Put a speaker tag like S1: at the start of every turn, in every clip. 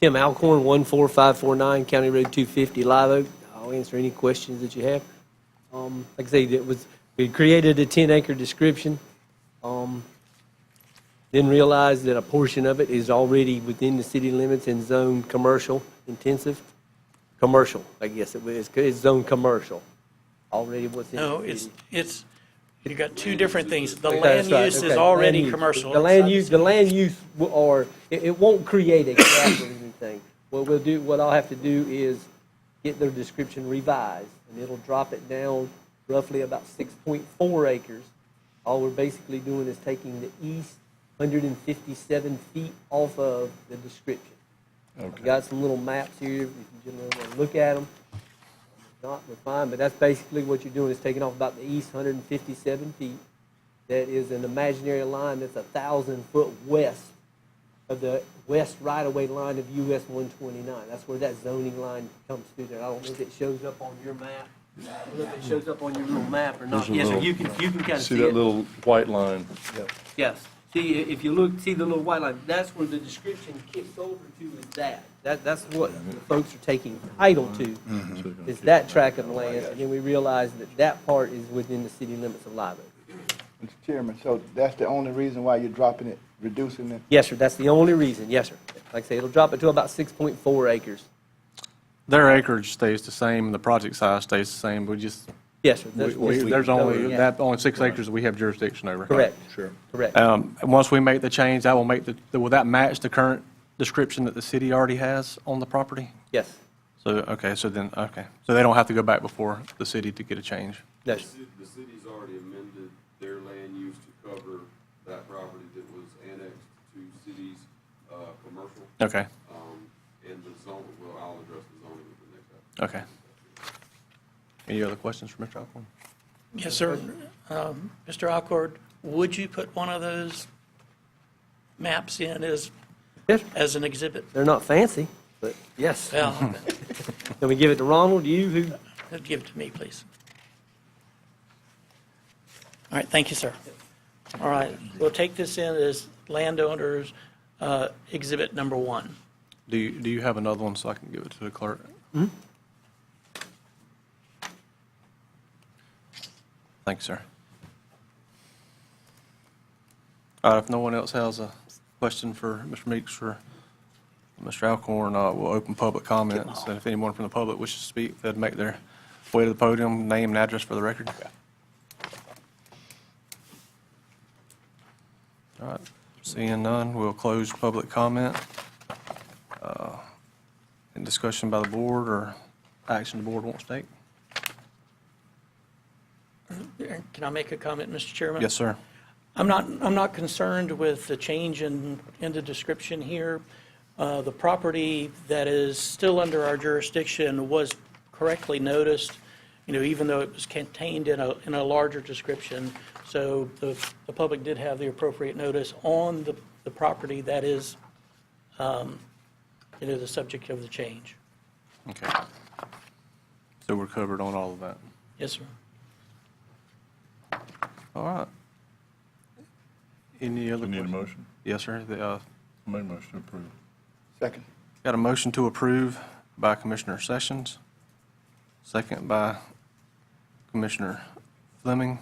S1: Tim Alcorn, 14549, County Road 250, Live Oak. I'll answer any questions that you have. Um, Like I say, it was, we created a 10-acre description, um, then realized that a portion of it is already within the city limits and zoned commercial intensive. Commercial, I guess it was, it's zoned commercial, already what's in.
S2: No,
S1: the
S2: it's,
S1: city.
S2: it's, you got two different things. The
S1: That's
S2: land
S1: right,
S2: use
S1: okay,
S2: is
S1: land
S2: already
S1: use.
S2: commercial.
S1: The land use, the land use, w- or, it, it won't create a gap or anything. What we'll do, what I'll have to do is get their description revised, and it'll drop it down roughly about six point four acres. All we're basically doing is taking the east hundred and fifty-seven feet off of the description. I've got some little maps here, if you gentlemen want to look at them. Not refined, but that's basically what you're doing, is taking off about the east hundred and fifty-seven feet. That is an imaginary line that's a thousand foot west of the west right-of-way line of US one twenty-nine. That's where that zoning line comes through there. I don't know if it shows up on your map. I don't know if it shows up on your little map or not.
S3: There's a
S1: Yes, sir,
S3: little-
S1: you can, you can kind of see
S3: See
S1: it.
S3: that little white line?
S1: Yes. See, i- if you look, see the little white line, that's where the description kicks over to is that. That, that's what the folks are taking title to,
S3: Mm-hmm.
S1: is that tract of land. And then we realize that that part is within the city limits of Live Oak.
S4: Mr. Chairman, so that's the only reason why you're dropping it, reducing it?
S1: Yes, sir, that's the only reason, yes, sir. Like I say, it'll drop it to about 6.4 acres.
S5: Their acreage stays the same, the project size stays the same, we just,
S1: Yes, sir.
S5: we-
S1: that's what
S5: we-
S1: we-
S5: there's only,
S1: Yeah.
S5: that, only six acres that we have jurisdiction over.
S1: Correct.
S3: Sure.
S1: Correct.
S5: Um, and Once we make the change, that will make the, will that match the current description that the city already has on the property?
S1: Yes.
S5: So, okay, so then, okay, so they don't have to go back before the city to get a change?
S1: No,
S6: The ci- The city's already amended their land use to cover that property that was annexed to cities, uh, commercial,
S5: Okay,
S6: um, and the zone, well, I'll address the zoning at the next time.
S5: okay. Any other questions for Mr. Alcorn?
S2: Yes, sir. Um, Mr. Alcord, would you put one of those maps in as,
S1: Yes, sir.
S2: as an exhibit?
S1: they're not fancy, but yes.
S2: Well, uh,
S1: Can we give it to Ronald, you, who,
S2: give it to me, please. All right, thank you, sir. All right, we'll take this in as landowners, uh, exhibit number one.
S5: Do you, do you have another one so I can give it to the clerk? Thanks, sir. All right, if no one else has a question for Mr. Meeks or Mr. Alcorn, uh, we'll open public comments. And if anyone from the public wishes to speak, they'd make their way to the podium, name and address for the record. All right, seeing none, we'll close public comment. Any discussion by the board or action the board wants to take?
S2: Can I make a comment, Mr. Chairman?
S5: Yes, sir.
S2: I'm not, I'm not concerned with the change in, in the description here. Uh, The property that is still under our jurisdiction was correctly noticed, you know, even though it was contained in a, in a larger description. So the, the public did have the appropriate notice on the, the property that is, um, you know, the subject of the change.
S5: Okay. So we're covered on all of that.
S2: Yes, sir.
S5: All right. Any other
S3: We need a
S5: questions?
S3: motion?
S5: Yes, sir. The, uh,
S3: I made a motion to approve.
S4: Second.
S5: Got a motion to approve by Commissioner Sessions, second by Commissioner Fleming.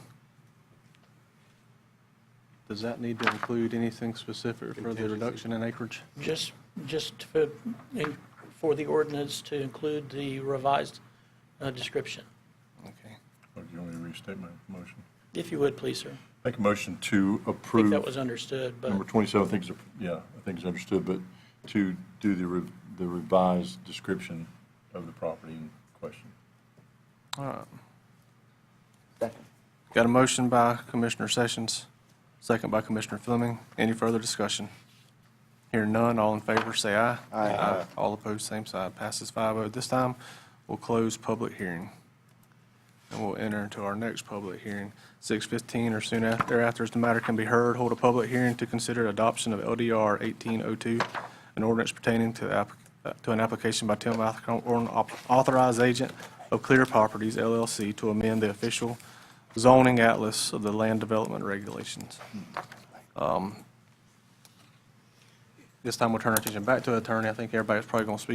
S5: Does that need to include anything specific for the reduction in acreage?
S2: Just, just for, for the ordinance to include the revised uh, description.
S5: Okay.
S3: Or do you want me to restate my motion?
S2: If you would, please, sir.
S3: Make a motion to
S2: I think
S3: approve.
S2: that was understood, but,
S3: Number 27, I think, is a- yeah, I think it's understood, but to do the re- the revised description of the property in question.
S5: All right.
S4: Second.
S5: Got a motion by Commissioner Sessions, second by Commissioner Fleming. Any further discussion? Hearing none, all in favor, say aye. Aye. All opposed, same side. Passes 5-0. This time, we'll close public hearing. And we'll enter into our next public hearing. 6:15 or soon af- thereafter, as the matter can be heard, hold a public hearing to consider adoption of LDR 1802, an ordinance pertaining to applic- uh, to an application by Tim Alcorn, au- authorized agent of Clear Properties LLC, to amend the official zoning atlas of the land development regulations. Um, This time we'll turn our attention back to the attorney. I think everybody's probably going to speak